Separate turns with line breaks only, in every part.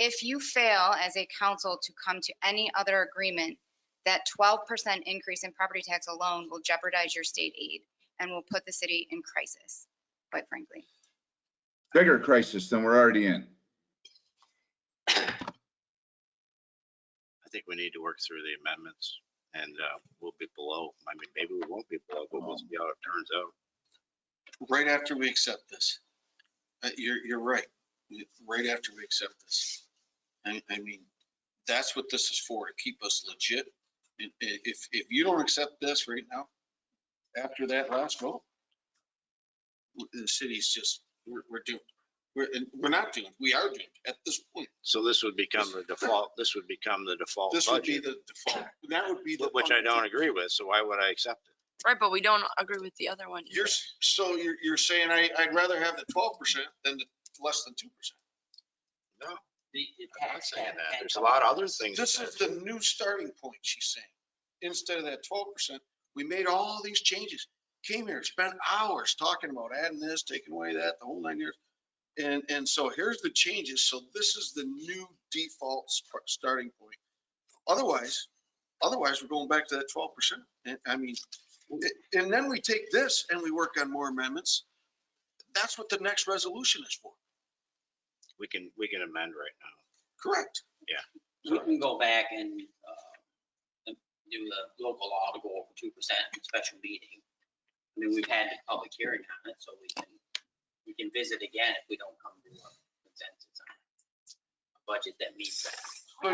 If you fail as a council to come to any other agreement, that 12% increase in property tax alone will jeopardize your state aid and will put the city in crisis, quite frankly.
Bigger crisis than we're already in.
I think we need to work through the amendments and uh, we'll be below. I mean, maybe we won't be below, but
Uh-huh.
we'll see how it turns out.
right after we accept this. Uh, You're, you're right. Right after we accept this. And I mean, that's what this is for, to keep us legit. I- i- If, if you don't accept this right now, after that last vote, w- the city's just, we're, we're doomed. We're, and we're not doomed. We are doomed at this point.
So this would become the default, this would become the default
This would be
Oh, budget,
the default. That would be the.
wh- which I don't agree with. So why would I accept it?
Right, but we don't agree with the other one.
You're, s- so you're, you're saying I, I'd rather have the twelve percent than the less than two percent.
No,
The- the
I'm not
tax
saying
cap
that.
can
There's a
come
lot of
up.
other things.
This
in
is
there.
the new starting point, she's saying. Instead of that twelve percent, we made all these changes, came here, spent hours talking about adding this, taking away that, the whole nine years. And, and so here's the changes. So this is the new default sp- starting point. Otherwise, otherwise, we're going back to that twelve percent. And I mean, a- and then we take this and we work on more amendments. That's what the next resolution is for.
We can, we can amend right now.
Correct.
We can go back and uh, and do the local law to go over two percent in special meeting. I mean, we've had the public hearing on it, so we can, we can visit again if we don't come to a consensus on a budget that meets that.
So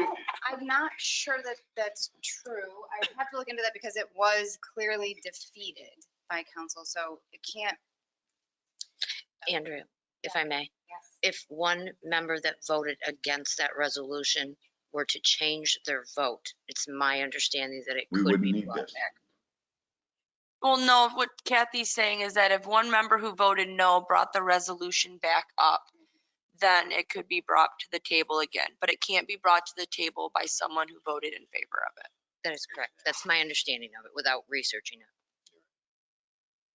I'm not sure that that's true. I would have to look into that because it was clearly defeated by council, so it can't.
Andrew, if I may,
Yes.
if one member that voted against that resolution were to change their vote, it's my understanding that it
We
could
wouldn't
be
need
brought
this.
back.
Well, no, what Kathy's saying is that if one member who voted no brought the resolution back up, then it could be brought to the table again, but it can't be brought to the table by someone who voted in favor of it.
That is correct. That's my understanding of it without researching it.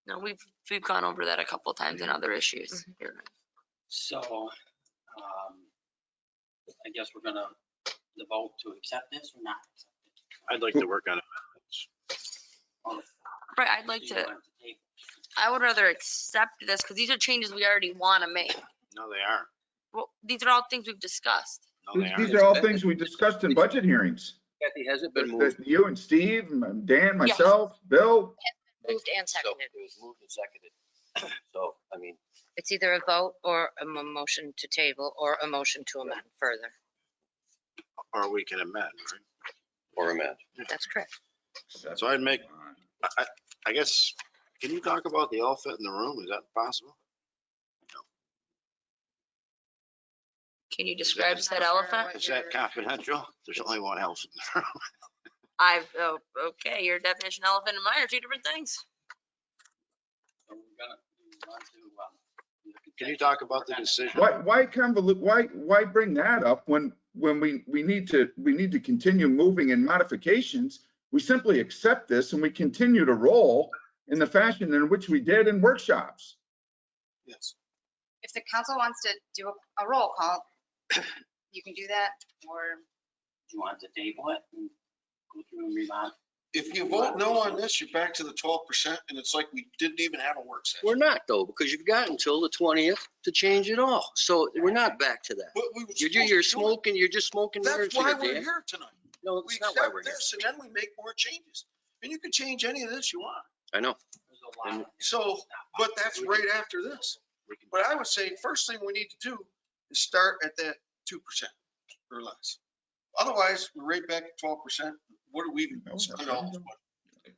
No, we've, we've gone over that a couple times in other issues. You're right.
So, um, I guess we're gonna, the vote to accept this or not accept it.
I'd like to work on it.
Or-
Right, I'd like
do you
to,
want to table?
I would rather accept this because these are changes we already want to make.
No, they aren't.
Well, these are all things we've discussed.
No, they
These- These
aren't.
are all things we discussed in budget hearings.
Kathy, has it been moved?
That You and Steve, and Dan,
Yes.
myself, Bill,
Moved and
So,
seconded.
It was moved and seconded. So, I mean,
It's either a vote or a mo- motion to table or a motion to amend further.
Or we can amend, right?
or amend.
That's correct.
So I'd make, I, I- I guess, can you talk about the elephant in the room? Is that possible?
Can you describe
Is
said elephant?
Is that confidential? There's only one elephant in the room.
I've, oh, okay, your definition of elephant and mine are two different things.
So we're gonna, we want to, um, do the
Can you
consensus
talk
or
about the
amend it?
decision?
Why, why convolute, why, why bring that up when, when we, we need to, we need to continue moving in modifications? We simply accept this and we continue to roll in the fashion in which we did in workshops.
Yes.
If the council wants to do a- a roll call, you can do that, or
Do you want to table it and go through and remodify?
If you vote no on this, you're back to the twelve percent, and it's like we didn't even have a work session.
We're not though, because you've got until the twentieth to change it all. So we're not back to that.
But we were
You're, ju-
supposed
you're
to do it.
smoking, you're just smoking mirrors
That's why
here,
we're
Dan.
here tonight.
No,
We
it's not why
accept
we're here.
this, and then we make more changes. And you can change any of this you want.
I know.
There's a lot.
And-
of-
So, but that's right after this.
We can-
But I would say, first thing we need to do is start at that two percent or less. Otherwise, we're right back at twelve percent. What do we even spend all this money?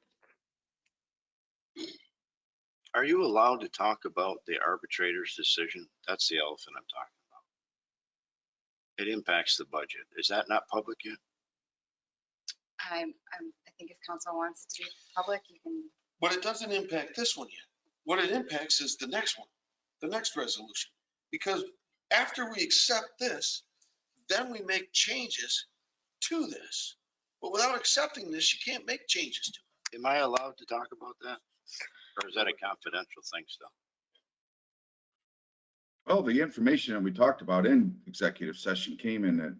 Are you allowed to talk about the arbitrator's decision? That's the elephant I'm talking about. It impacts the budget. Is that not public yet?
I'm, I'm, I think if council wants to do public, you can.
But it doesn't impact this one yet. What it impacts is the next one, the next resolution. Because after we accept this, then we make changes to this. But without accepting this, you can't make changes to it.
Am I allowed to talk about that? Or is that a confidential thing still?
Well, the information that we talked about in executive session came in at